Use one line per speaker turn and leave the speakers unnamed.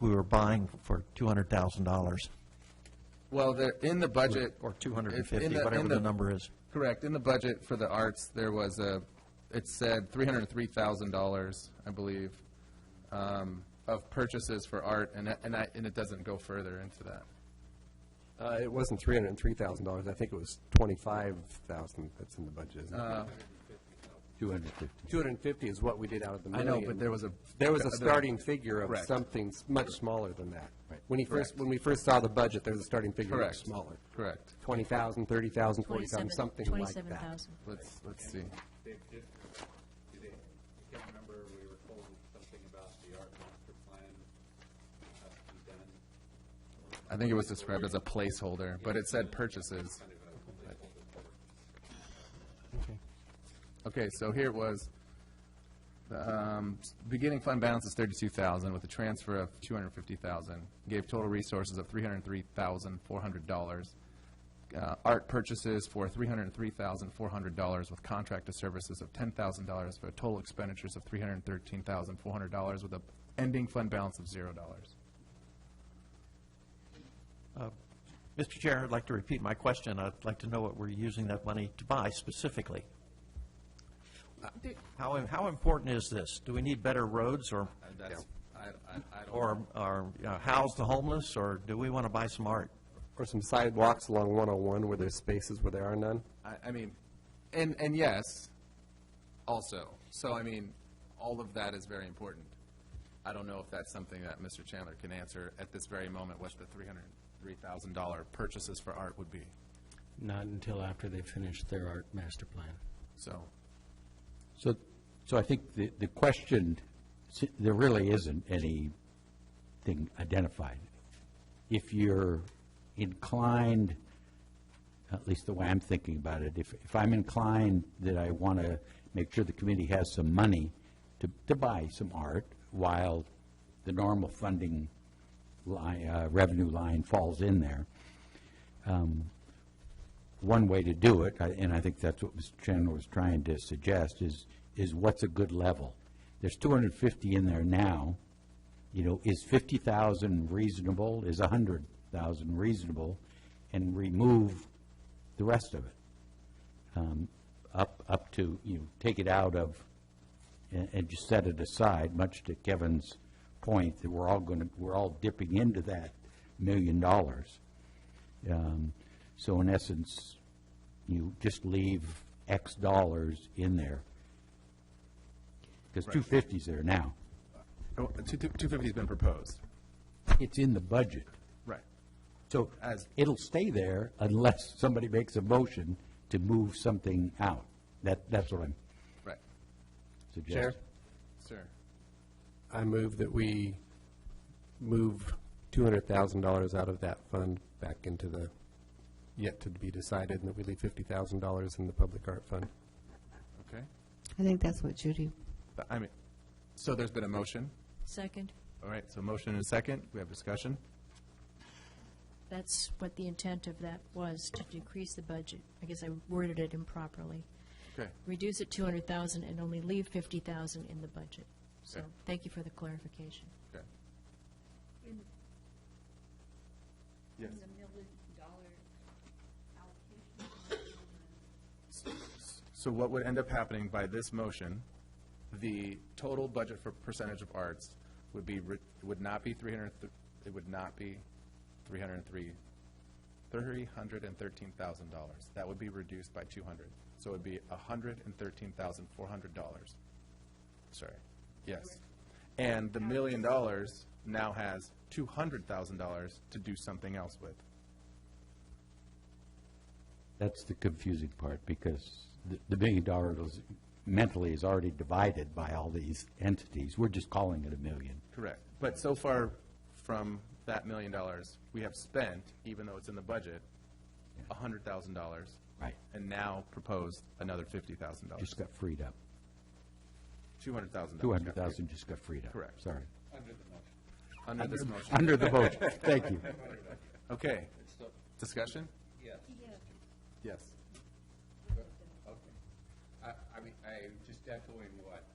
we were buying for $200,000,
Well, there, in the budget.
or
if- in
250,
in
whatever the number is.
Correct. In the budget for the arts, there was a, it said three hundred and three thousand dollars, I believe, um, of purchases for art, and, that- and I, and it doesn't go further into that.
Uh, it wasn't three hundred and three thousand dollars, I think it was twenty-five thousand that's in the budget, isn't
Uh,
it?
Two hundred fifty.
Two hundred and fifty is what we did out of the
I
million.
know, but there was a-
There was a
there-
starting figure of
Correct.
something s- much smaller than that.
Right.
When he first, when we first saw the budget, there was a starting figure much
Correct.
smaller.
Correct.
Twenty thousand, thirty thousand, forty thousand, something like
Twenty-seven
that.
thousand.
Let's, let's see.
Dave, did, do they, I can't remember, we were told something about the art master plan has to be done.
I think it was described as a placeholder, but it said purchases. Okay, so here it was. The, um, s- Beginning fund balance is thirty-two thousand with a transfer of two hundred and fifty thousand. Gave total resources of three hundred and three thousand, four hundred dollars. uh, Art purchases for three hundred and three thousand, four hundred dollars with contracted services of ten thousand dollars for total expenditures of three hundred and thirteen thousand, four hundred dollars with a ending fund balance of zero dollars.
Mr. Chair, I'd like to repeat my question. I'd like to know what we're using that money to buy specifically. How, im- how important is this? Do we need better roads or,
That's, I, I, I don't.
or, or uh, house the homeless, or do we want to buy some art?
Or some sidewalks along one oh one where there's spaces where there are none.
I, I mean, and, and yes, also. So, I mean, all of that is very important. I don't know if that's something that Mr. Chandler can answer at this very moment, what the three hundred, three thousand dollar purchases for art would be,
Not until after they finish their art master plan.
so.
So, so I think the, the question, s- there really isn't anything identified. If you're inclined, at least the way I'm thinking about it, if, if I'm inclined that I want to make sure the committee has some money to, to buy some art while the normal funding line, uh, revenue line falls in there, one way to do it, I- and I think that's what Mr. Chandler was trying to suggest, is, is what's a good level? There's 250 in there now, you know, is 50,000 reasonable, is 100,000 reasonable? And remove the rest of it, Um, up, up to, you know, take it out of, and, and just set it aside, much to Kevin's point, that we're all going to, we're all dipping into that million dollars. Um, So in essence, you just leave X dollars in there. Because 250's there now.
Oh, Two, two fifty's been proposed.
It's in the budget.
Right.
So
As-
it'll stay there unless somebody makes a motion to move something out. That, that's what I'm
Right,
suggesting.
sir.
I move that we move two hundred thousand dollars out of that fund back into the yet to be decided, and that we leave fifty thousand dollars in the public art fund.
Okay,
I think that's what Judy,
But, I mean, so there's been a motion,
Second,
all right, so motion and a second, we have discussion.
that's what the intent of that was, to decrease the budget. I guess I worded it improperly.
Okay,
Reduce it two hundred thousand and only leave fifty thousand in the budget. So,
Okay.
thank you for the clarification.
okay.
the million dollar allocation.
So what would end up happening by this motion, the total budget for percentage of arts would be, re- would not be three hundred, it would not be three hundred and three, three hundred and thirteen thousand dollars. That would be reduced by two hundred. So it would be a hundred and thirteen thousand, four hundred dollars. Sorry, yes. And the million dollars now has two hundred thousand dollars to do something else with.
That's the confusing part, because the- the million dollars mentally is already divided by all these entities. We're just calling it a million.
Correct. But so far from that million dollars, we have spent, even though it's in the budget, a hundred thousand dollars.
Right.
And now proposed another fifty thousand dollars,
Just got freed up.
two hundred thousand dollars.
200,000 just got freed up.
Correct.
Sorry.
Under this motion.
Under the motion, thank you.
Okay. Discussion? Yes.
I, I mean, I, just echoing what